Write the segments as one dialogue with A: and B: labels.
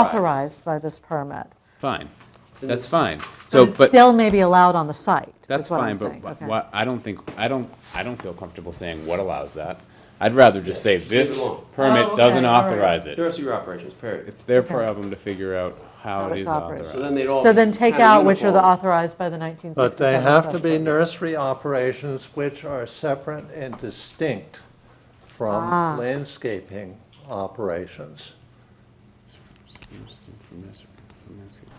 A: authorized by this permit.
B: Fine, that's fine. So,
A: it's
B: but,
A: Still may be allowed on the site.
B: that's
A: is what I'm
B: fine, but
A: saying.
B: wh-
A: Okay.
B: why- I don't think, I don't, I don't feel comfortable saying what allows that. I'd rather just say this
C: alone.
A: Oh, okay,
B: permit doesn't
A: all right.
B: authorize it.
C: Nursery operations, period.
B: It's their
A: Okay.
B: problem to figure out how
A: How
B: it
A: it's
B: is
A: operated.
B: authorized.
C: So then they'd all.
A: So
C: be
A: then take
C: kinda
A: out which are the
C: uniform.
A: authorized by the 1967
D: But they have to be
A: special permit.
D: nursery operations which are separate and distinct
A: Ah.
D: from landscaping operations.
B: From this- from landscaping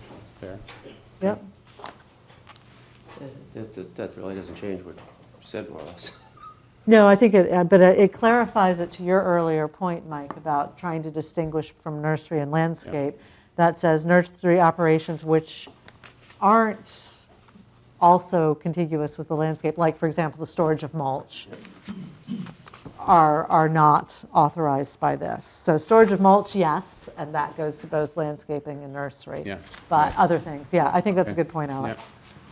B: operations. Fair.
A: Yep,
C: That, that- that really doesn't change what you said more or less.
A: no, I think it, uh, but it- it clarifies it to your earlier point, Mike, about trying to distinguish from nursery and landscape. That says nursery operations which aren't also contiguous with the landscape, like, for example, the storage of mulch, are, are not authorized by this. So storage of mulch, yes, and that goes to both landscaping and nursery.
B: Yeah.
A: But other things, yeah, I think that's a good point, Alex.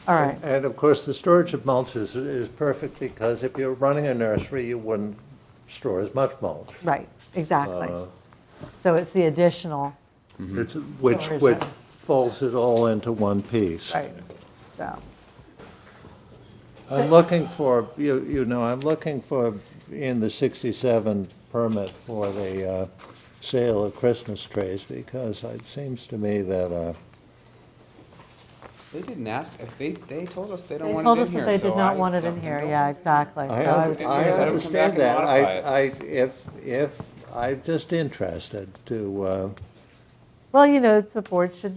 A: All right,
D: And of course, the storage of mulch is, is perfect because if you're running a nursery, you wouldn't store as much mulch.
A: right, exactly. So it's the additional,
D: It's, which,
A: Storage.
D: which folds it all into one piece.
A: right, so,
D: I'm looking for, you, you know, I'm looking for, in the 67 permit for the uh, sale of Christmas trees, because it seems to me that, uh,
B: They didn't ask, if they, they told us they
A: they told us that they did not want it in here, yeah, exactly. So
D: I
A: I would
D: un-
A: just
B: leave
D: I
B: it. Let 'em come back
D: understand
B: and
D: that. I,
B: modify
D: I, if, if, I'm just interested to, uh,
A: Well, you know, the board should,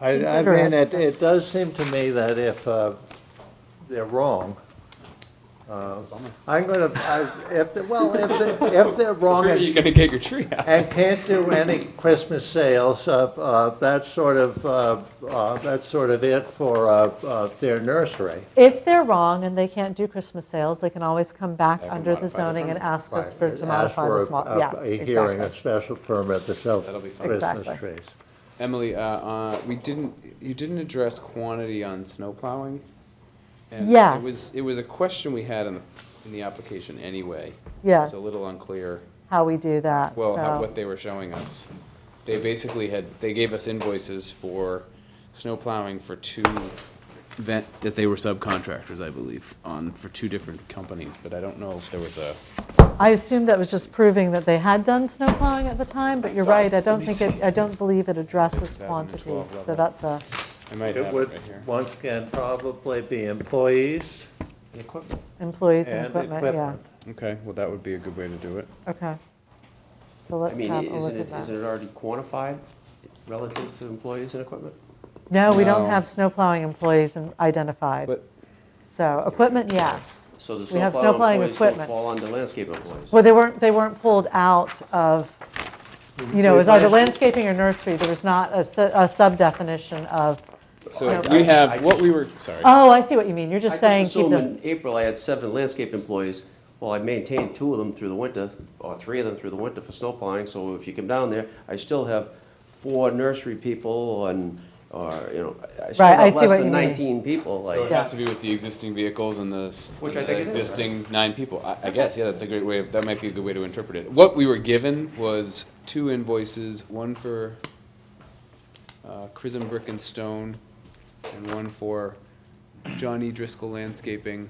D: I, I
A: Consider
D: mean,
A: it.
D: it, it does seem to me that if uh, they're wrong, uh, I'm gonna, I- if, they- well, if they, if they're wrong
B: Where are
D: and
B: you gonna get your tree out?
D: and can't do any Christmas sales, uh, uh, that's sort of, uh, uh, that's sort of it for uh, uh, their nursery.
A: if they're wrong and they can't do Christmas sales, they can always come back
B: can
A: under the
B: modify the
A: zoning and ask us for,
D: Ask
A: to modify
D: for
A: the
D: a-
A: small,
D: a-
A: yes,
D: A hearing, a
A: exactly.
D: special permit to sell
B: That'll be fine.
D: Christmas
A: Exactly.
D: trees.
B: Emily, uh, uh, we didn't, you didn't address quantity on snow plowing. and
A: Yes.
B: It was, it was a question we had in the, in the application anyway.
A: Yes.
B: It was a little unclear,
A: How we do that,
B: well, how,
A: so,
B: what they were showing us. They basically had, they gave us invoices for snow plowing for two vent, that they were subcontractors, I believe, on, for two different companies, but I don't know if there was a.
A: I assumed that was just proving that they had done snow plowing at the time, but you're right, I don't
B: me
A: think it, I don't believe it addresses
B: 2012
A: quantities, so
B: level.
A: that's uh, a,
B: I might
D: It
B: have it
D: would,
B: right here.
D: once again, probably be employees
C: The equipment.
A: employees and
D: and
A: equipment, yeah,
D: equipment.
B: Okay, well, that would be a good way to do it.
A: okay. So
C: I
A: let's
C: mean,
A: have a look
C: isn't
A: at
C: it,
A: that.
C: isn't it already quantified relative to employees and equipment?
A: No, we don't
B: No.
A: have snow plowing employees in- identified.
B: But
A: So equipment, yes.
C: So the
A: We have
C: snowplow
A: snow plowing
C: employees don't
A: equipment.
C: fall under landscape employees.
A: Well, they weren't, they weren't pulled out of, you know, it was either landscaping or nursery. There was not a su- a sub-definition of,
B: So
A: No.
B: we have, what we were, sorry.
A: oh, I see what you mean. You're
C: I
A: just
C: just
A: saying keep
C: assumed
A: them.
C: in April, I had seven landscape employees. Well, I maintained two of them through the winter, or three of them through the winter for snow plowing, so if you come down there, I still have four nursery people and, or, you know, I- I still
A: Right, I
C: have
A: see
C: less
A: what
C: than
A: you mean.
C: nineteen people,
B: So it
C: like,
A: Yeah.
B: has to do with the existing vehicles and the
C: Which I
B: the
C: think it is, right?
B: existing nine people. I, I guess, yeah, that's a great way, of- that might be a good way to interpret it. What we were given was two invoices, one for uh, Chrism Brick and Stone and one for Johnny Driscoll Landscaping.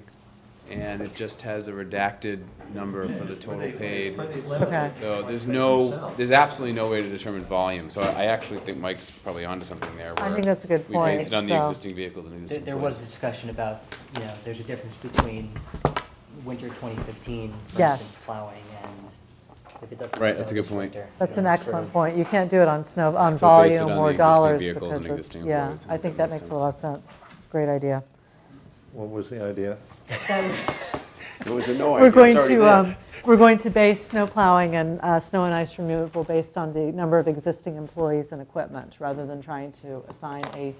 B: And it just has a redacted number for the total paid.
A: Okay.
B: So there's no, there's absolutely no way to determine volume. So I I actually think Mike's probably onto something there.
A: I
B: where
A: think that's a good
B: We based
A: point,
B: it on the
A: so-
B: existing vehicles and
E: There,
B: existing.
E: there was a discussion about, you know, there's a difference between winter 2015, for
A: Yes.
E: instance, plowing, and if it doesn't.
B: Right,
E: snow
B: that's a good
E: this
B: point.
E: winter,
A: That's
E: you
A: an
E: know,
A: excellent
E: sort
A: point. You can't do it on snow, on
B: So base it
A: volume
B: on the
A: or
B: existing
A: dollars.
B: vehicles
A: because
B: and
A: it's-
B: existing
A: Yeah,
B: employees,
A: I
B: and
A: think
B: that
A: that
B: makes
A: makes a lot of sense. Great idea.
D: What was the idea?
C: it was a no idea,
A: We're
C: it's
A: going
C: already
A: to,
C: there.
A: um, we're going to base snow plowing and uh, snow and ice removal based on the number of existing employees and equipment, rather than trying to assign a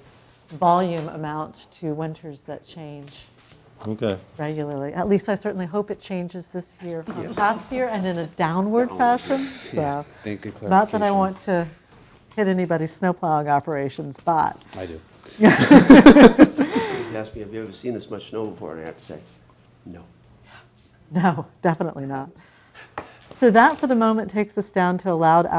A: volume amount to winters that change
D: Okay.
A: regularly. At least I certainly hope it changes this year from past year and in a downward fashion, so.
B: Thank good clarification.
A: Not that I want to hit anybody's snow plowing operations, but
B: I do.
C: He asked me, have you ever seen this much snow before? And I have to say, no.
A: no, definitely not. So that, for the moment, takes us down to allowed